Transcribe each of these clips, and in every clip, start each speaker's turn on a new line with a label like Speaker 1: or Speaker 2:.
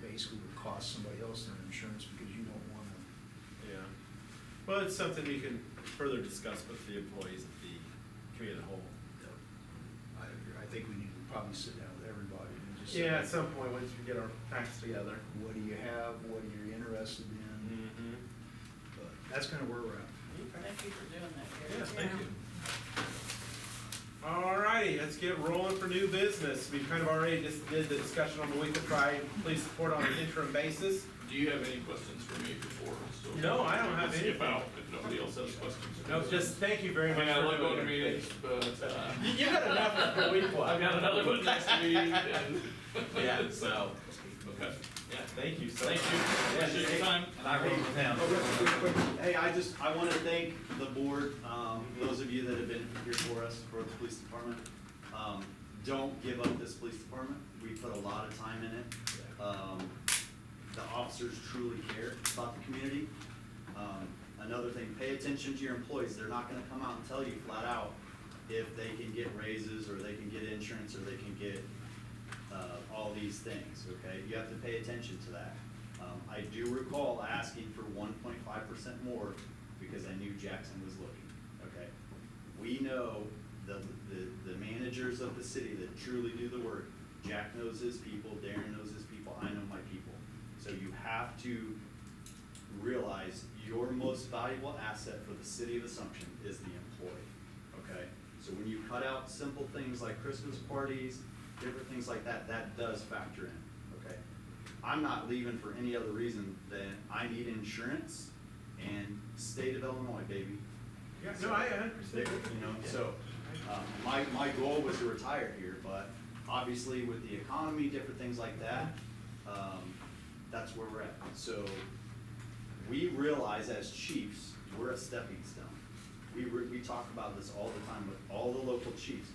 Speaker 1: basically would cost somebody else their insurance because you don't wanna.
Speaker 2: Yeah, well, it's something we can further discuss with the employees at the committee of the whole.
Speaker 1: I, agree. I think we need to probably sit down with everybody and just say.
Speaker 3: Yeah, at some point, once we get our facts together.
Speaker 1: What do you have, what are you interested in,
Speaker 2: Mm-hmm.
Speaker 1: but that's kinda where we're at.
Speaker 4: Thank you for doing that, Gary.
Speaker 2: Yeah, thank you. Alrighty, let's get rolling for new business. We've kind of already just did the discussion on the week of try police support on an interim basis.
Speaker 5: Do you have any questions for me before? so-
Speaker 2: No, I don't have
Speaker 5: See if
Speaker 2: anything.
Speaker 5: I'll- if nobody else has questions.
Speaker 2: No, just thank you very
Speaker 5: I
Speaker 2: much.
Speaker 5: mean, I
Speaker 2: for
Speaker 5: like
Speaker 2: doing
Speaker 5: going to
Speaker 2: it.
Speaker 5: meetings, but, uh,
Speaker 2: You you got enough of the week one.
Speaker 5: I've got another one next week and.
Speaker 2: Yeah.
Speaker 5: So, okay, yeah,
Speaker 2: Thank you so much.
Speaker 5: thank you, appreciate your time.
Speaker 6: And I wrote it down.
Speaker 7: Hey, I just, I want to thank the board, um, those of you that have been here for us, for the police department. Um, Don't give up this police department. We put a lot of time in it. Um, The officers truly care about the community. Um, Another thing, pay attention to your employees. They're not gonna come out and tell you flat out if they can get raises, or they can get insurance, or they can get uh, all these things, okay? You have to pay attention to that. Um, I do recall asking for one point five percent more because I knew Jackson was looking, okay? We know the, the, the managers of the city that truly do the work. Jack knows his people, Darren knows his people, I know my people. So you have to realize your most valuable asset for the city of Assumption is the employee, okay? So when you cut out simple things like Christmas parties, different things like that, that does factor in, okay? I'm not leaving for any other reason than I need insurance and state of Illinois, baby.
Speaker 2: Yeah, no, I a hundred
Speaker 7: They-
Speaker 2: percent.
Speaker 7: You know, so, um, my, my goal was to retire here, but obviously with the economy, different things like that, um, that's where we're at. So, we realize as chiefs, we're a stepping stone. We, re- we talk about this all the time with all the local chiefs.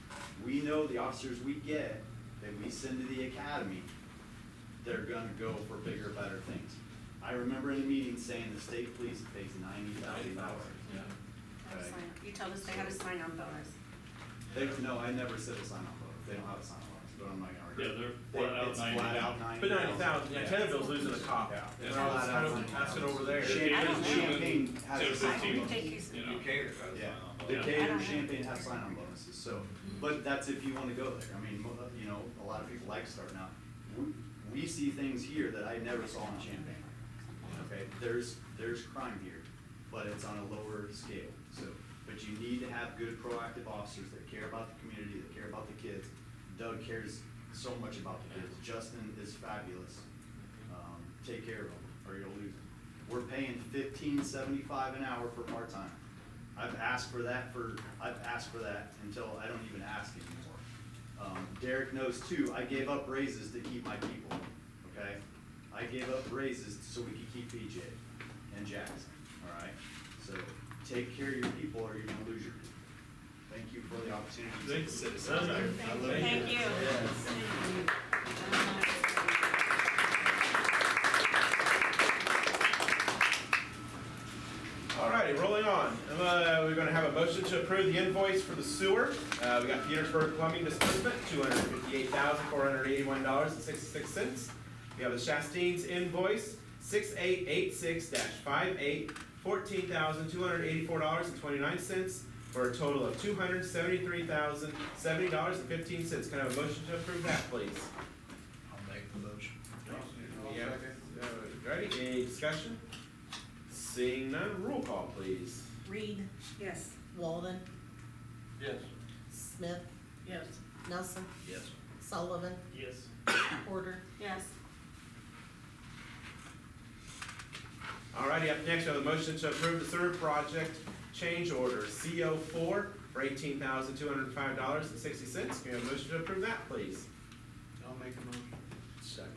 Speaker 7: We know the officers we get, that we send to the academy, they're gonna go for bigger, better things. I remember in a meeting saying the state police pays ninety thousand dollars.
Speaker 5: Yeah.
Speaker 4: Have a sign- You told us they had a sign-on bonus.
Speaker 7: They, no, I never said a sign off bonus, they don't have a sign off bonus, but I'm not gonna argue.
Speaker 5: Yeah, they're flat out
Speaker 7: It's flat
Speaker 5: 90.
Speaker 7: out ninety.
Speaker 2: But ninety thousand, yeah,
Speaker 7: Yeah.
Speaker 2: Kennedale's losing a cop.
Speaker 7: Yeah.
Speaker 2: And all this kind of passing over there.
Speaker 5: Shit.
Speaker 4: I don't know.
Speaker 7: Champagne has a
Speaker 5: Two
Speaker 7: sign
Speaker 4: I
Speaker 5: fifteen,
Speaker 7: on
Speaker 4: don't
Speaker 7: bonus.
Speaker 4: think he's-
Speaker 5: you know.
Speaker 6: You cater, I was
Speaker 7: Yeah,
Speaker 6: on.
Speaker 5: Yeah.
Speaker 7: Decatur, Champagne have sign-on bonuses, so, but that's if you wanna go there, I mean, mo- you know, a lot of people like starting out. We, we see things here that I never saw in Champagne. okay, there's, there's crime here, but it's on a lower scale, so, but you need to have good proactive officers that care about the community, that care about the kids. Doug cares so much about the kids, Justin is fabulous, um, take care of them, or you'll lose them. We're paying fifteen seventy-five an hour for part-time, I've asked for that for, I've asked for that until I don't even ask anymore. Um, Derek knows too, I gave up raises to keep my people, okay? I gave up raises so we could keep PJ and Jackson, all right? So take care of your people or you're gonna lose your people. Thank you for the opportunity. to-
Speaker 2: Thank you, citizens.
Speaker 4: Thank you.
Speaker 2: Alrighty, rolling on. Uh, we're gonna have a motion to approve the invoice for the sewer. Uh, we got Petersburg Plumbing Disbursement, two hundred fifty-eight thousand, four hundred eighty-one dollars and sixty-six cents. We have the Shastine's invoice, six eight eight six dash five eight, fourteen thousand, two hundred eighty-four dollars and twenty-nine cents, for a total of two hundred seventy-three thousand, seventy dollars and fifteen cents. Can I have a motion to approve that, please?
Speaker 1: I'll make the motion.
Speaker 2: Yeah. Uh, Ready, any discussion? Seeing none, roll call please.
Speaker 8: Reed,
Speaker 4: Yes.
Speaker 8: Walden,
Speaker 6: Yes.
Speaker 8: Smith,
Speaker 4: Yes.
Speaker 8: Nelson,
Speaker 1: Yes.
Speaker 8: Sullivan,
Speaker 6: Yes.
Speaker 8: Porter,
Speaker 4: Yes.
Speaker 2: Alrighty, up next, we have a motion to approve the sewer project change order, CO four, for eighteen thousand two hundred and five dollars and sixty cents. Can we have a motion to approve that, please?
Speaker 3: I'll make a motion.
Speaker 1: Second.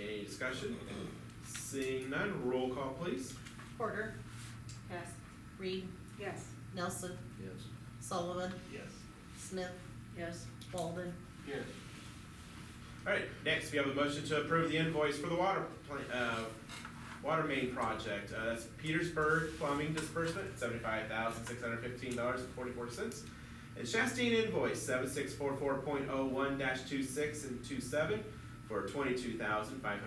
Speaker 2: Any discussion? Seeing none, roll call please.
Speaker 8: Porter,
Speaker 4: Yes.
Speaker 8: Reed,
Speaker 4: Yes.
Speaker 8: Nelson,
Speaker 1: Yes.
Speaker 8: Sullivan,
Speaker 6: Yes.
Speaker 8: Smith,
Speaker 4: Yes.
Speaker 8: Walden,
Speaker 6: Yes.
Speaker 2: Alright, next, we have a motion to approve the invoice for the water plant, uh, water main project. Uh, that's Petersburg Plumbing Disbursement, seventy-five thousand, six hundred fifteen dollars and forty-four cents. And Chastain invoice, seven six four four point oh one dash two six and two seven, for twenty-two thousand, five hundred